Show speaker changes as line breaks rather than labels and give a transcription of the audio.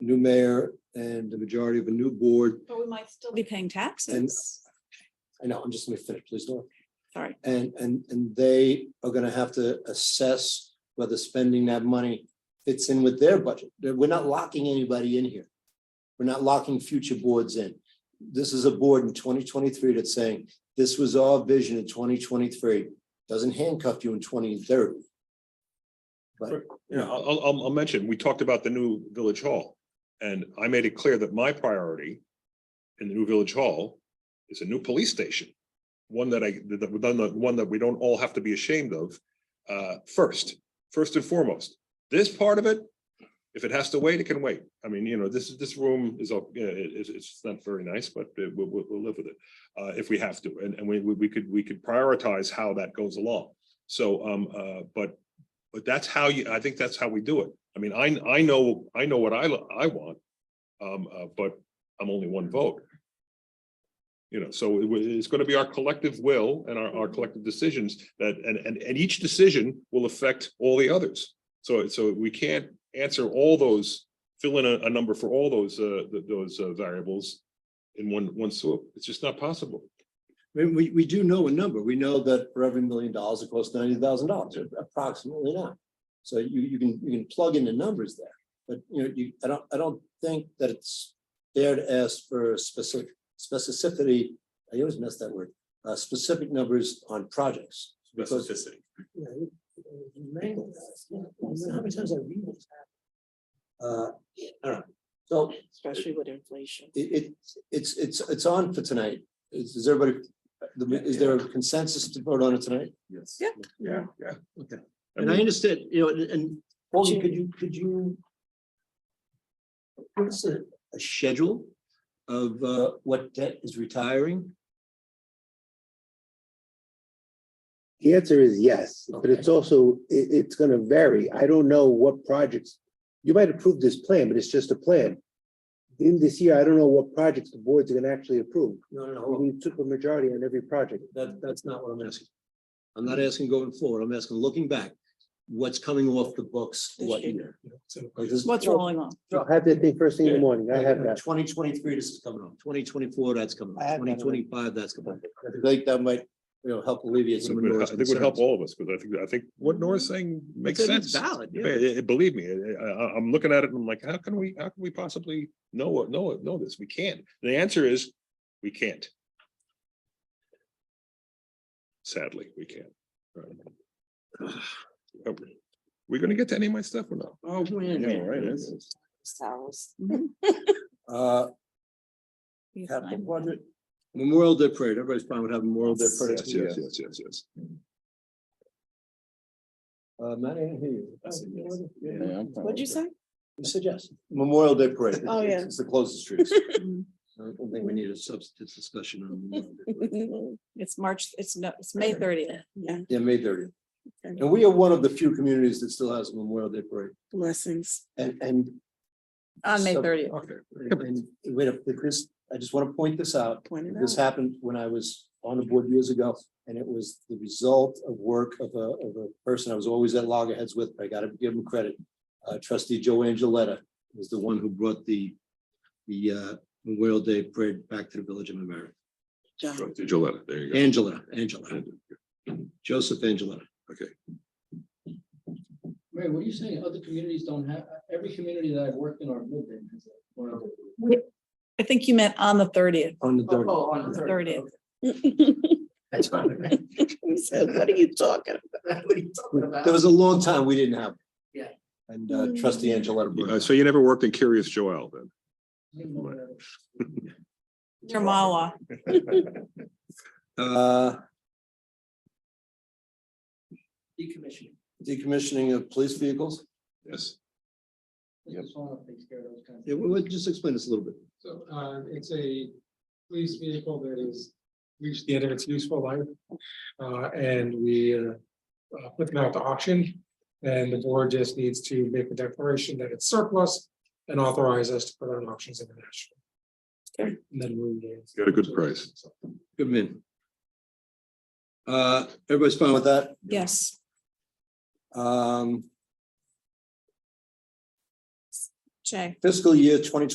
new mayor and the majority of a new board.
But we might still be paying taxes.
I know, I'm just gonna finish, please don't.
Sorry.
And, and, and they are gonna have to assess whether spending that money fits in with their budget. They're- We're not locking anybody in here. We're not locking future boards in. This is a board in twenty twenty-three that's saying, this was our vision in twenty twenty-three. Doesn't handcuff you in twenty thirty.
Yeah, I'll, I'll- I'll, I'll mention, we talked about the new village hall. And I made it clear that my priority in the new village hall is a new police station. One that I, that, that- one that, one that we don't all have to be ashamed of, uh, first, first and foremost. This part of it, if it has to wait, it can wait. I mean, you know, this is, this room is, all- yeah, it, it's, it's not very nice, but uh, we'll, we'll, we'll live with it. Uh, if we have to, and, and we, we we could, we could prioritize how that goes along. So, um, uh, but but that's how you, I think that's how we do it. I mean, I, I know, I know what I, lo- I want. Um, uh, but I'm only one vote. You know, so it wa- it's gonna be our collective will and our, our collective decisions that, and, and, and each decision will affect all the others. So, so we can't answer all those, fill in a, a number for all those, uh, th- those uh, variables in one, one swoop. It's just not possible.
We, we, we do know a number. We know that for every million dollars, it costs ninety thousand dollars, approximately now. So you, you can, you can plug in the numbers there, but you know, you, I don't, I don't think that it's fair to ask for specific, specificity. I always mess that word, uh, specific numbers on projects. because- you know, you mangle that. You know, How many times I read this? Uh, all right, so
Especially with inflation.
it, it, it's, it's, it's on for tonight. Is, is everybody, the- is there a consensus to vote on it tonight?
Yes.
Yeah.
Yeah, yeah.
Okay.
I
And I
mean,
understand, you know, and- and, Paul, could you, could you? Give us a, a schedule of, uh, what debt is retiring?
The answer is yes, but it's also, i- it's gonna vary. I don't know what projects. You might approve this plan, but it's just a plan. In this year, I don't know what projects the boards are gonna actually approve.
No, no, no,
We
hold on.
need super majority on every project.
that, that's not what I'm asking. I'm not asking going forward, I'm asking looking back, what's coming off the books, what year? Like this-
What's rolling on?
I'll have that thing first thing in the morning. I have that.
Twenty twenty-three, this is coming up. Twenty twenty-four, that's coming
I
up.
have that
Twenty
already.
twenty-five, that's coming up. I think that might, you know, help alleviate some of
I
those
think it would help
concerns.
all of us, because I think, I think what Nora's saying makes
It's- it's
sense.
Valid,
Yeah,
yeah.
it- it- believe me, I, I, I'm looking at it and I'm like, how can we, how can we possibly know, what- know, it- know this? We can't. The answer is, we can't. Sadly, we can't. Are we- We gonna get to any of my stuff or not?
Oh, man.
Yeah, right, that's-
Uh,
You
capital
find-
budget, Memorial Day Parade, everybody's fine with having Memorial Day Parade.
Yes, yes, yes, yes, yes.
Uh, Matt, I didn't hear you.
I said yes.
Yeah.
What'd you say?
You said yes. Memorial Day Parade.
Oh, yeah.
It's the closest streets.
Mm.
I don't think we need a substantive discussion on. Memorial Day Parade.
It's March, it's no, it's May thirtieth. Yeah.
Yeah, May thirtieth.
Okay.
And we are one of the few communities that still has a Memorial Day Parade
Blessings.
and, and
On May
So-
thirtieth.
Okay.
And wait, up, if this, I just want to point this out.
Point it
This
out.
happened when I was on the board years ago, and it was the result of work of a, of a person I was always at loggerheads with, but I gotta give him credit. Uh, trustee Joe Angeletta was the one who brought the, the, uh, Memorial Day Parade back to the Village of America.
Gillette, there you go.
Angela, Angela, Joseph Angeletta.
Mary, what are you saying? Other communities don't have, every community that I've worked in or lived in has a Memorial Day.
I think you meant on the thirtieth.
On the third,
Oh, on the
Thirtieth.
That's fine.
What are you talking?
What are you talking about?
there was a long time we didn't have. it.
Yeah.
And uh, trustee Angeletta. brought it
Uh,
back.
So you never worked in Curious Joel then?
Jamawa.
Uh,
Decommissioning.
decommissioning of police vehicles.
Yes.
This is one of the things Gary was kind of-
Yeah, well, well, just explain this a little bit.
So um it's a police vehicle that is reached the end of its useful life. Uh and we uh uh, put them out to auction. And the board just needs to make a declaration that it's surplus and authorize us to put on auctions international.
Okay.
And then we.
Got a good price.
Good man. Uh, everybody's fine with that?
Yes.
Um,
Jay.
fiscal year twenty